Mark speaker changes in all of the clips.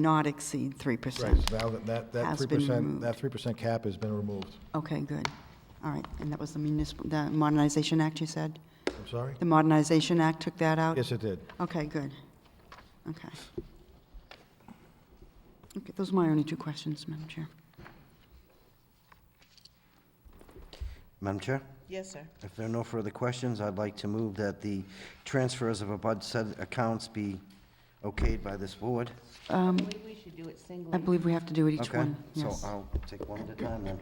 Speaker 1: not exceed
Speaker 2: Right,
Speaker 1: 3%.
Speaker 2: so now that, that, that
Speaker 1: Has
Speaker 2: three
Speaker 1: been
Speaker 2: percent,
Speaker 1: removed.
Speaker 2: that three percent cap has been removed.
Speaker 1: Okay, good. All right, and that was the municipal, the Modernization Act, you said?
Speaker 2: I'm sorry?
Speaker 1: The Modernization Act took that out?
Speaker 2: Yes, it did.
Speaker 1: Okay, good. Okay. Okay, those are my only two questions, Madam Chair.
Speaker 3: Madam Chair,
Speaker 4: Yes, sir.
Speaker 3: if there are no further questions, I'd like to move that the transfers of above said accounts be okayed by this board.
Speaker 4: I believe we should do it
Speaker 1: I
Speaker 4: singly.
Speaker 1: believe we have to do it each
Speaker 3: Okay,
Speaker 1: one,
Speaker 3: So
Speaker 1: yes.
Speaker 3: I'll take one at a time then.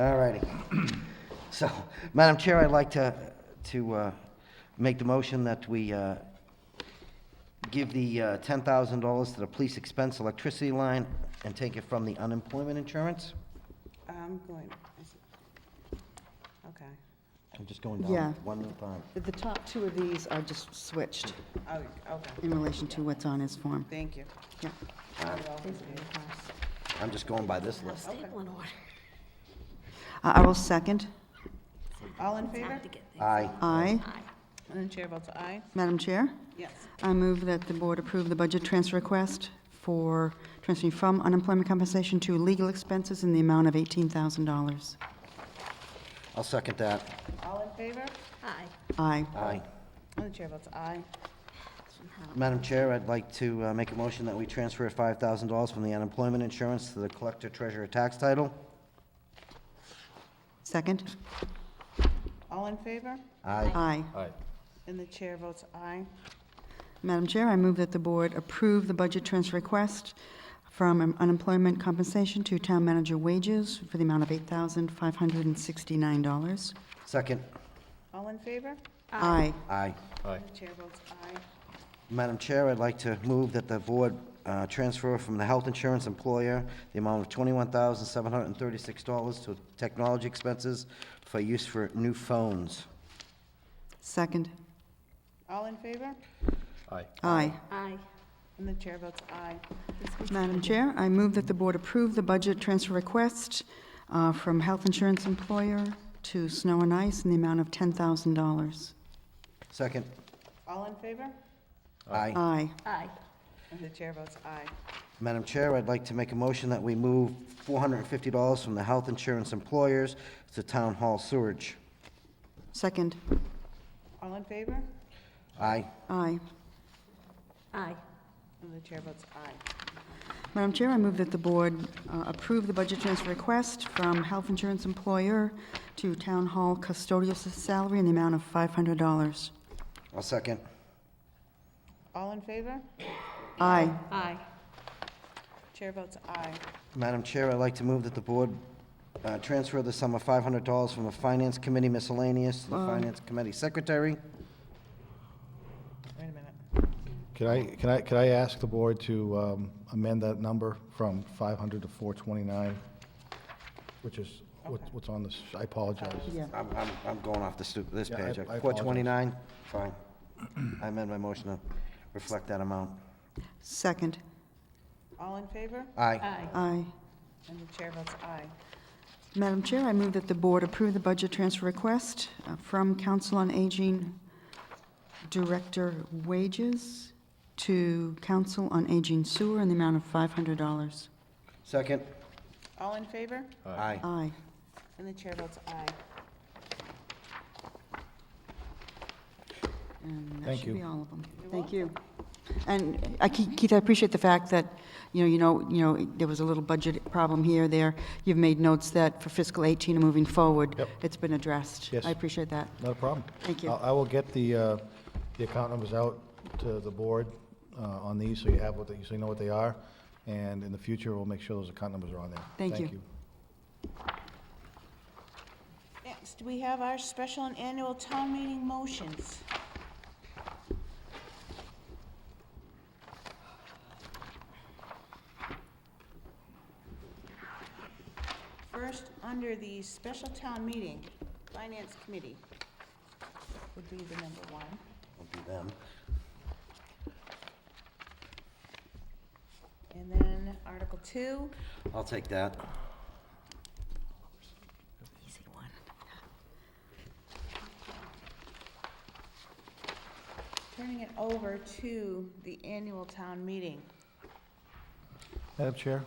Speaker 3: All righty. So, Madam Chair, I'd like to, to uh, make the motion that we uh, give the uh, $10,000 to the police expense electricity line and take it from the unemployment insurance.
Speaker 4: I'm going, is it- okay.
Speaker 3: I'm just going
Speaker 1: Yeah.
Speaker 3: down one at a time.
Speaker 1: The- The top two of these are just switched
Speaker 4: Oh, okay,
Speaker 1: in relation to what's on his form.
Speaker 4: thank you.
Speaker 1: Yeah.
Speaker 3: I'm just going by this list.
Speaker 1: I I will second.
Speaker 4: All in favor?
Speaker 3: Aye.
Speaker 1: Aye.
Speaker 4: And the chair votes aye?
Speaker 1: Madam Chair?
Speaker 4: Yes.
Speaker 1: I move that the board approve the budget transfer request for transferring from unemployment compensation to legal expenses in the amount of $18,000.
Speaker 3: I'll second that.
Speaker 4: All in favor?
Speaker 1: Aye.
Speaker 3: Aye.
Speaker 4: And the chair votes aye.
Speaker 3: Madam Chair, I'd like to uh, make a motion that we transfer $5,000 from the unemployment insurance to the collector treasurer tax title.
Speaker 1: Second?
Speaker 4: All in favor?
Speaker 1: Aye.
Speaker 3: Aye.
Speaker 4: And the chair votes aye.
Speaker 1: Madam Chair, I move that the board approve the budget transfer request from unemployment compensation to town manager wages for the amount of $8,569.
Speaker 3: Second.
Speaker 4: All in favor?
Speaker 1: Aye.
Speaker 3: Aye.
Speaker 4: And the chair votes aye.
Speaker 3: Madam Chair, I'd like to move that the board uh, transfer from the health insurance employer the amount of $21,736 to technology expenses for use for new phones.
Speaker 1: Second?
Speaker 4: All in favor?
Speaker 1: Aye.
Speaker 4: And the chair votes aye.
Speaker 1: Madam Chair, I move that the board approve the budget transfer request uh, from health insurance employer to snow and ice in the amount of $10,000.
Speaker 3: Second.
Speaker 4: All in favor?
Speaker 3: Aye.
Speaker 1: Aye.
Speaker 4: And the chair votes aye.
Speaker 3: Madam Chair, I'd like to make a motion that we move $450 from the health insurance employers to town hall sewage.
Speaker 1: Second.
Speaker 4: All in favor?
Speaker 3: Aye.
Speaker 1: Aye.
Speaker 4: And the chair votes aye.
Speaker 1: Madam Chair, I move that the board uh, approve the budget transfer request from health insurance employer to town hall custodial s- salary in the amount of $500.
Speaker 3: I'll second.
Speaker 4: All in favor?
Speaker 1: Aye.
Speaker 4: Chair votes aye.
Speaker 3: Madam Chair, I'd like to move that the board uh, transfer the sum of $500 from the Finance Committee miscellaneous to the Finance Committee Secretary.
Speaker 4: Wait a minute.
Speaker 2: Can I, can I, could I ask the board to um, amend that number from five hundred to four twenty-nine? Which is, what-
Speaker 4: Okay.
Speaker 2: what's on this, I apologize.
Speaker 1: Yeah.
Speaker 3: I'm, I'm, I'm going off the stu, this
Speaker 2: Yeah, I-
Speaker 3: page.
Speaker 2: I apologize.
Speaker 3: 429, fine. I amend my motion to reflect that amount.
Speaker 1: Second.
Speaker 4: All in favor?
Speaker 3: Aye.
Speaker 1: Aye.
Speaker 4: And the chair votes aye.
Speaker 1: Madam Chair, I move that the board approve the budget transfer request uh, from Council on Aging Director Wages to Council on Aging Sewer in the amount of $500.
Speaker 3: Second.
Speaker 4: All in favor?
Speaker 3: Aye.
Speaker 1: Aye.
Speaker 4: And the chair votes aye.
Speaker 1: And that
Speaker 2: Thank
Speaker 1: should be
Speaker 2: you.
Speaker 1: all of them. Thank you. And I, Ke- Keith, I appreciate the fact that, you know, you know, you know, there was a little budget problem here, there. You've made notes that for fiscal 18 and moving forward,
Speaker 2: Yep.
Speaker 1: it's been addressed.
Speaker 2: Yes.
Speaker 1: I appreciate that.
Speaker 2: Not a problem.
Speaker 1: Thank you.
Speaker 2: I I will get the, uh, the account numbers out to the board uh, on these, so you have what, they- so you know what they are. And in the future, we'll make sure those account numbers are on there.
Speaker 1: Thank you.
Speaker 4: Next, we have our special and annual town meeting motions. First, under the special town meeting, Finance Committee would be the number one.
Speaker 3: Will be them.
Speaker 4: And then Article Two,
Speaker 3: I'll take that.
Speaker 1: Easy one.
Speaker 4: turning it over to the annual town meeting.
Speaker 2: Madam Chair?